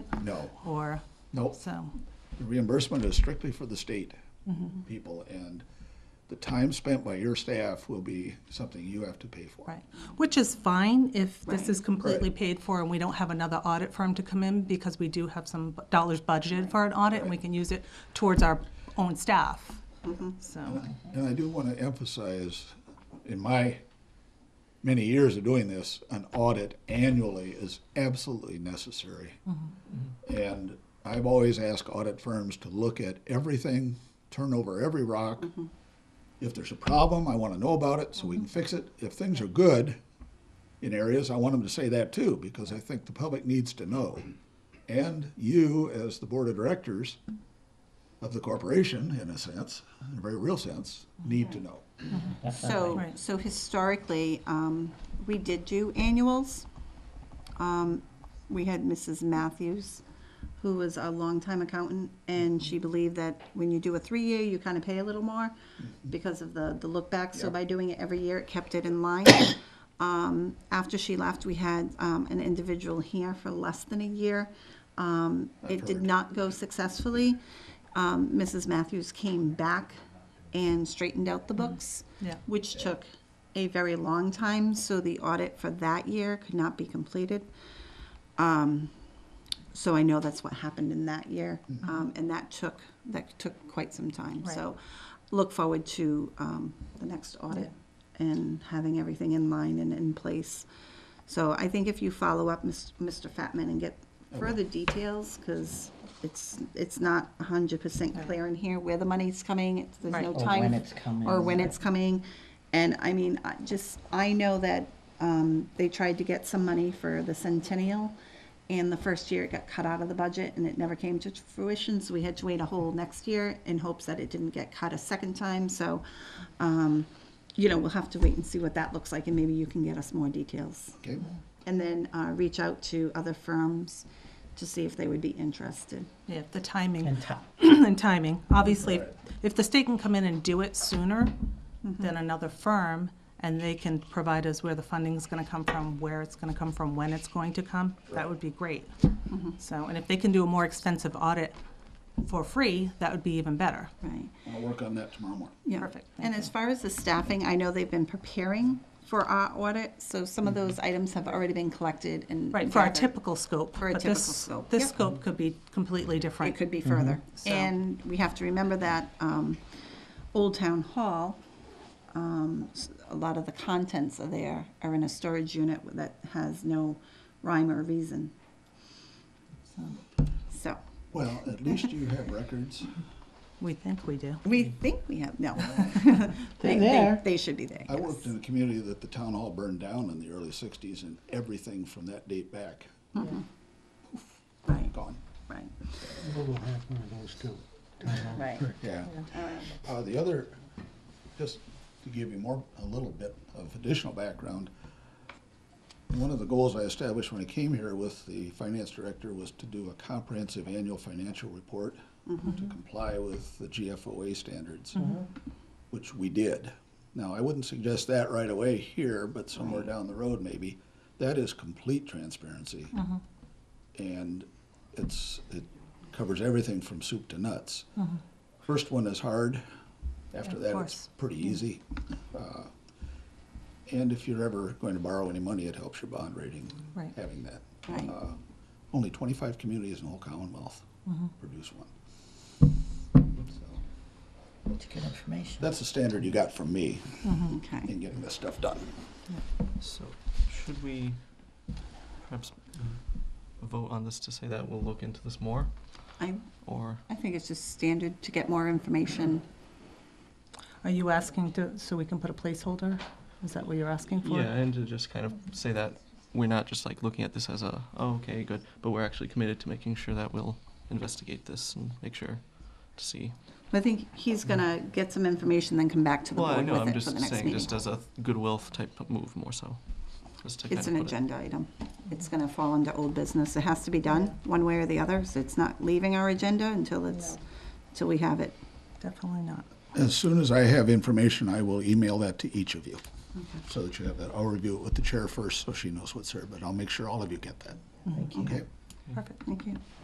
No, or, no, so, the reimbursement is strictly for the state people, and the time spent by your staff will be something you have to pay for. right. Which is fine if this is completely Right. paid for and we don't have another audit firm to come in because we do have some bu- dollars budgeted for an audit and we can use it towards our own staff. So, And I do want to emphasize, in my many years of doing this, an audit annually is absolutely necessary. And I've always asked audit firms to look at everything, turn over every rock. If there's a problem, I want to know about it so we can fix it. If things are good in areas, I want them to say that too, because I think the public needs to know. And you, as the board of directors, of the corporation, in a sense, in a very real sense, need to know. So, Right. so historically, um, we did do annuals. Um, We had Mrs. Matthews, who was a longtime accountant, and she believed that when you do a three-year, you kind of pay a little more because of the, the look back. So by doing it every year, it kept it in line. Um, After she left, we had um, an individual here for less than a year. Um, It did heard. not go successfully. Um, Mrs. Matthews came back and straightened out the books yeah. which took a very long time, so the audit for that year could not be completed. Um, So I know that's what happened in that year, um, and that took, that took quite some time. Mm-hmm. Right. So look forward to um, the next audit and having everything in line and in place. So I think if you follow up, Mis- Mr. Fatman, and get further details, because it's, it's not hundred percent clear in here where the money's coming, it's- there's no Right. Or time. when it's coming. Or when it's coming, and I mean, I just, I know that, um, they tried to get some money for the centennial, and the first year it got cut out of the budget, and it never came to fruition, so we had to wait a whole next year in hopes that it didn't get cut a second time, so, um, you know, we'll have to wait and see what that looks like, and maybe you can get us more details. Okay? And then, uh, reach out to other firms to see if they would be interested. Yeah, the timing And ti- and timing. Obviously, if the state can come in and do it sooner Mm-hmm. than another firm, and they can provide us where the funding's gonna come from, where it's gonna come from, when it's going to come, that would be great. Mm-hmm. So, and if they can do a more extensive audit for free, that would be even better. Right. I'll work on that tomorrow morning. Yeah. Perfect, thank And you. as far as the staffing, I know they've been preparing for our audit, so some of those items have already been collected and. Mm-hmm. Right, for our gathered. typical scope. For a but typical this- scope, This yeah. scope could be completely different. It could be further. Mm-hmm. So- And we have to remember that um, Old Town Hall, um, s- a lot of the contents of there are in a storage unit that has no rhyme or reason. So, Well, at least you have records. We think we do. we think we have, no. They- They're they- there. They should be there, I yes. worked in a community that the town hall burned down in the early sixties and everything from that date back, Right, gone. right, uh, We'll have one of those too. right. Yeah. Uh, the other, just to give you more, a little bit of additional background, one of the goals I established when I came here with the finance director was to do a comprehensive annual financial report Mm-hmm. to comply with the GFOA standards, which we did. Now, I wouldn't suggest that right away here, but somewhere Mm-hmm. down the road maybe. That is complete transparency. Mm-hmm. And it's, it covers everything from soup to nuts. First one is hard. After Mm-hmm. Of that, course. it's pretty easy. Uh, And if you're ever going to borrow any money, it helps your bond rating, Right. having that. Right. Uh, Only twenty-five communities in the whole Commonwealth produce one. So, It's good information. That's the standard you got from me Okay. in getting this stuff done. So, should we perhaps mm, vote on this to say that we'll look into this more, I, or? I think it's just standard to get more information. Are you asking to, so we can put a placeholder? Is that what you're asking for? Yeah, and to just kind of say that we're not just like looking at this as a, oh, okay, good, but we're actually committed to making sure that we'll investigate this and make sure to see. I think he's gonna get some information, then come back to the Well, I board know, with I'm it for just the next saying, just meeting. as a goodwill type of move more so. just to It's kind an of put it- agenda item. It's gonna fall into old business. It has to be done, one way or the other, so it's not leaving our agenda until it's, till we have it. Definitely not. As soon as I have information, I will email that to each of you. So that you have that. I'll review it with the chair first, so she knows what's there, but I'll make sure all of you get that. Okay? Perfect. Thank you.